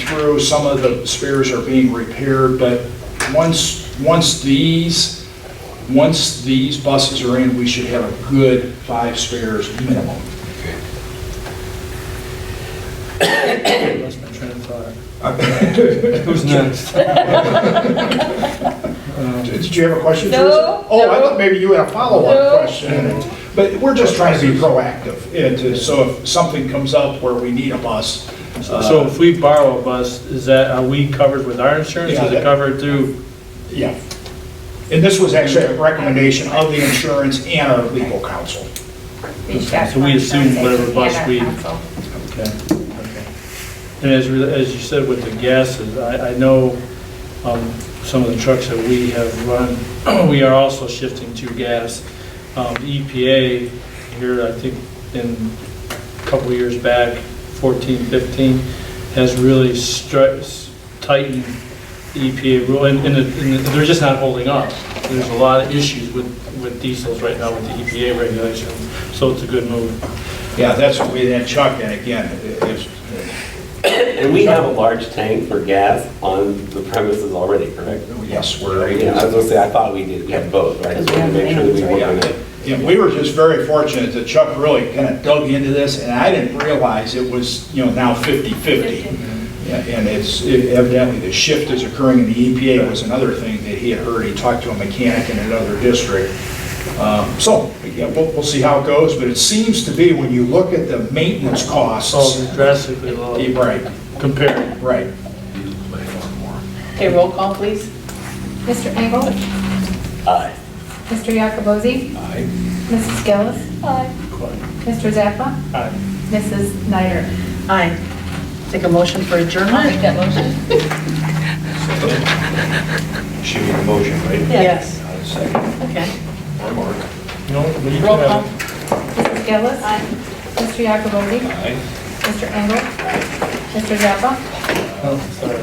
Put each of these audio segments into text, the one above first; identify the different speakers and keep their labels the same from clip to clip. Speaker 1: through, some of the spares are being repaired, but once, once these, once these buses are in, we should have a good five spares minimum. Lost my train of thought.
Speaker 2: Who's next?
Speaker 1: Did you have a question?
Speaker 3: No,
Speaker 1: Teresa? Oh, I
Speaker 3: no.
Speaker 1: thought maybe you had a
Speaker 3: No.
Speaker 1: follow-up question. But we're just trying to be proactive, and to- so if something comes up where we need a bus. uh,
Speaker 2: So if we borrow a bus, is that, are we covered with our insurance?
Speaker 1: Yeah,
Speaker 2: Is
Speaker 1: that-
Speaker 2: it covered through?
Speaker 1: Yeah. And this was actually a recommendation of the insurance and our legal counsel.
Speaker 2: So we assume whatever bus we-
Speaker 1: Okay.
Speaker 2: And as, we- as you said with the gases, I, I know um, some of the trucks that we have run, we are also shifting to gas. Um, the EPA here, I think in a couple of years back, 14, 15, has really stri- tightened the EPA rule, and, and it- and it- they're just not holding up. There's a lot of issues with, with diesels right now with the EPA regulations, so it's a good move.
Speaker 1: Yeah, that's what we had Chuck, and again, it- it's,
Speaker 4: And we have a large tank for gas on the premises already, correct?
Speaker 1: yes, we're,
Speaker 4: Yeah, I was gonna say, I thought we did, we had both, right? Just wanted to make sure that we were on it.
Speaker 1: and we were just very fortunate that Chuck really kind of dug into this, and I didn't realize it was, you know, now 50/50. Yeah, And it's evidently the shift is occurring in the EPA was another thing that he had heard. He talked to a mechanic in another district. Um, So, yeah, we'll, we'll see how it goes, but it seems to be when you look at the maintenance costs.
Speaker 2: So Oh, drastically low
Speaker 1: Right,
Speaker 2: compared.
Speaker 1: right.
Speaker 3: Okay, roll call, please.
Speaker 5: Mr. Engel?
Speaker 4: Aye.
Speaker 5: Mr. Yakobozzi?
Speaker 1: Aye.
Speaker 5: Mrs. Gillis? Aye. Mr. Zappa?
Speaker 2: Aye.
Speaker 5: Mrs. Snyder?
Speaker 3: Aye. Take a motion for adjournment? I'll make that motion.
Speaker 1: Should be a motion, right?
Speaker 3: Yes. Okay.
Speaker 2: No, but you
Speaker 3: Roll
Speaker 2: can have-
Speaker 3: call.
Speaker 5: Mrs. Gillis? Aye. Mr. Yakobozzi? Mr. Engel? Mr. Zappa?
Speaker 2: Oh, uh, sorry.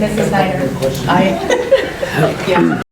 Speaker 5: Mrs. Snyder?
Speaker 3: Aye. Yeah.